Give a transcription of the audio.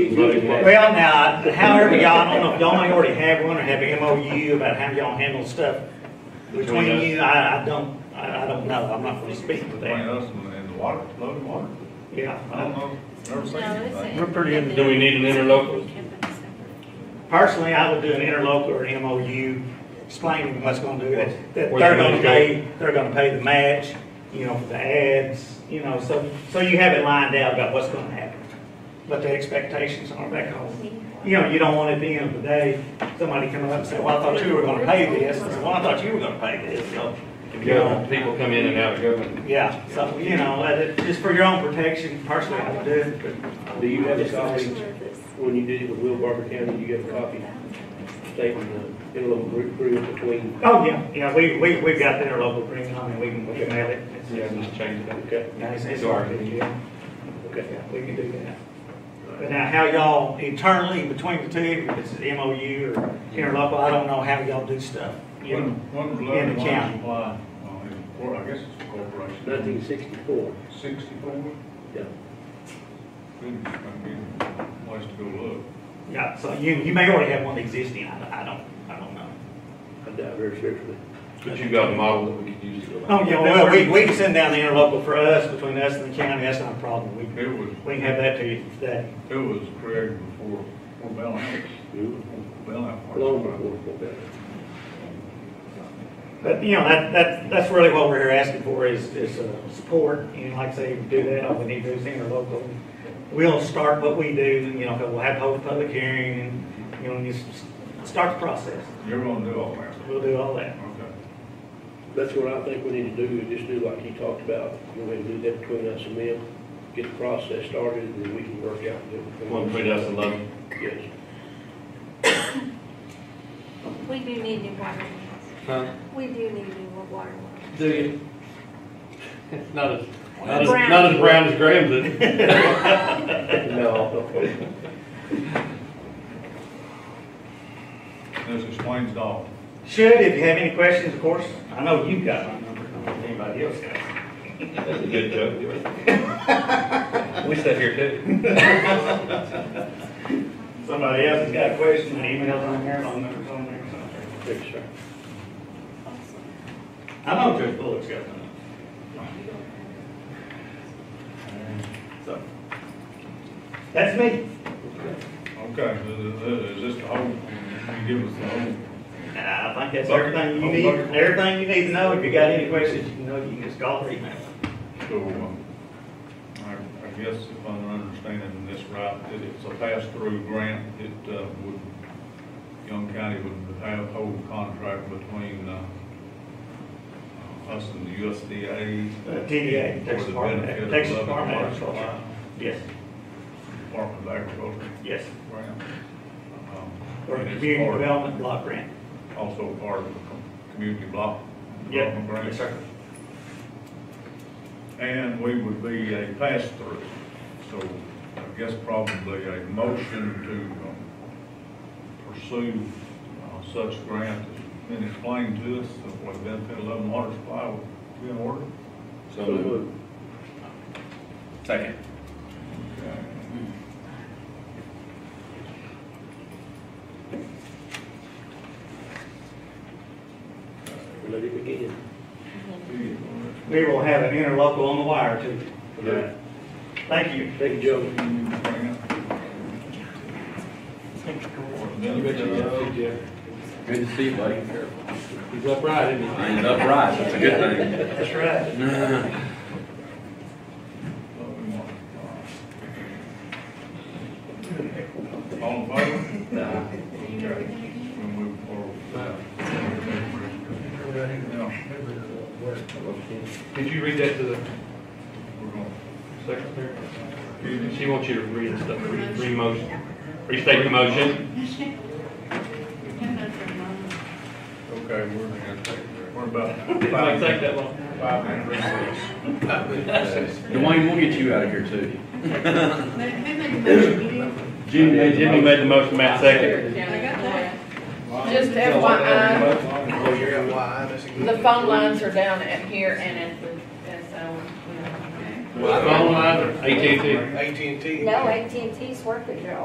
Well, now, however, y'all, I don't know if y'all may already have one or have an MOU about how y'all handle stuff between Between us. you, I, I don't, I, I don't know, I'm not gonna speak to Between that. us and and the water, loaded water, I don't Yeah, know, never seen anything. We're pretty in- Do we need an interlocal? personally, I would do an interlocal or an MOU explaining what's gonna do, that, that Where they're the money gonna go. pay, they're gonna pay the match, you know, for the ads, you know, so, so you have it lined out about what's gonna happen. What the expectations are, that kind of You know, you don't want at the end of the day, somebody coming up and say, well, I thought you were gonna pay this, and say, well, I thought you were gonna pay this, so. you know, Government, people come in and out of government. Yeah, so, you know, let it- just for your own protection, personally, I would do it, but Do you have a copy, when you did it with Will Barber County, you got a copy stating the interlocal agreement between? Oh, yeah, yeah, we, we, we've got the interlocal agreement, I mean, we can, we can mail it. Yeah, just change it up. Okay, Yeah, it's, it's Sure. hard to do, yeah, okay. Yeah, we can do that. But now, how y'all internally between the two, if it's MOU or interlocal, I don't know how y'all do stuff. you know. One, one was In loaded the water county. supply, well, it was cor- I guess it's a corporation. Nineteen sixty-four, Sixty-four, yeah. good, I mean, place to go look. Yeah, so you, you may already have one existing, I, I don't, I don't know. I doubt very seriously. But you got a model that we could use to go Oh, back. yeah, well, we, we can send down the interlocal for us, between us and the county, that's not a problem, we, It was, we can have that to you today. it was created before, before Bell House, before Bell House. Mm-hmm. Long before that. But, you know, that, that, that's really what we're here asking for is, is, uh, support, and like I say, if we do that, all we need to do is interlocal. We'll start what we do, you know, we'll have a public hearing, and, you know, just start the process, You're gonna do all that, we'll do all that. okay. That's what I think we need to do, is just do like he talked about, go ahead and do that between us and them, get the process started, and then we can work out. the- One put us in love. Yes. We do need new water lines. Huh? We do need new water lines. Do you? Not as, not as, not as brown as Graham's is. No. This explains it all. Should, if you have any questions, of course, I know you've got my number, I don't know if anybody else has. That's a good joke. We sat here too. Somebody else has got a question, an email on there, phone number's on there, so. Thanks, sir. I know Judge Bullock's got one. So, that's me. Okay, is- is is this the whole, you give us the whole And I think that's everything you need, everything you need to know. If you got any questions, you know, you can just call or email. So, um, I, I guess if I'm understanding this right, that it's a pass-through grant that, uh, would, Young County would have whole contract between, uh, uh, us and the USDA. Uh, TDA, Texas For the Department, benefit of Texas Lubbock Department of Parks, Agriculture. Yes, Department of Agriculture yes. grant. Um, Or and it's community part- development block grant. Also part of the com- community block. Yeah, development grant. yes, sir. And we would be a pass-through, so I guess probably a motion to um, pursue uh, such grant has been explained to us, that would benefit eleven water supply would be in order. So uh, So moved. moved. Second. Okay. Let it begin. We will have an interlocal on the wire too. Yeah. Thank you. Thank you, Joe. You Good to see you, buddy. He's upright, isn't he? He's upright, that's a good thing. That's right. All in favor? Okay, we'll move forward. Now, Did you read that to the we're gonna- secretary? She wants you to read and stuff, Re- re-motion, restate the motion. Okay, we're gonna take, we're about. It might take that long. Five minute recess. Dwayne, we'll get you out of here too. Jimmy, Jimmy made the motion, Matt second. Just FYI, the phone lines are down at here and at the, and so, you know. Phone lines are AT&T. No, AT&T's working, they're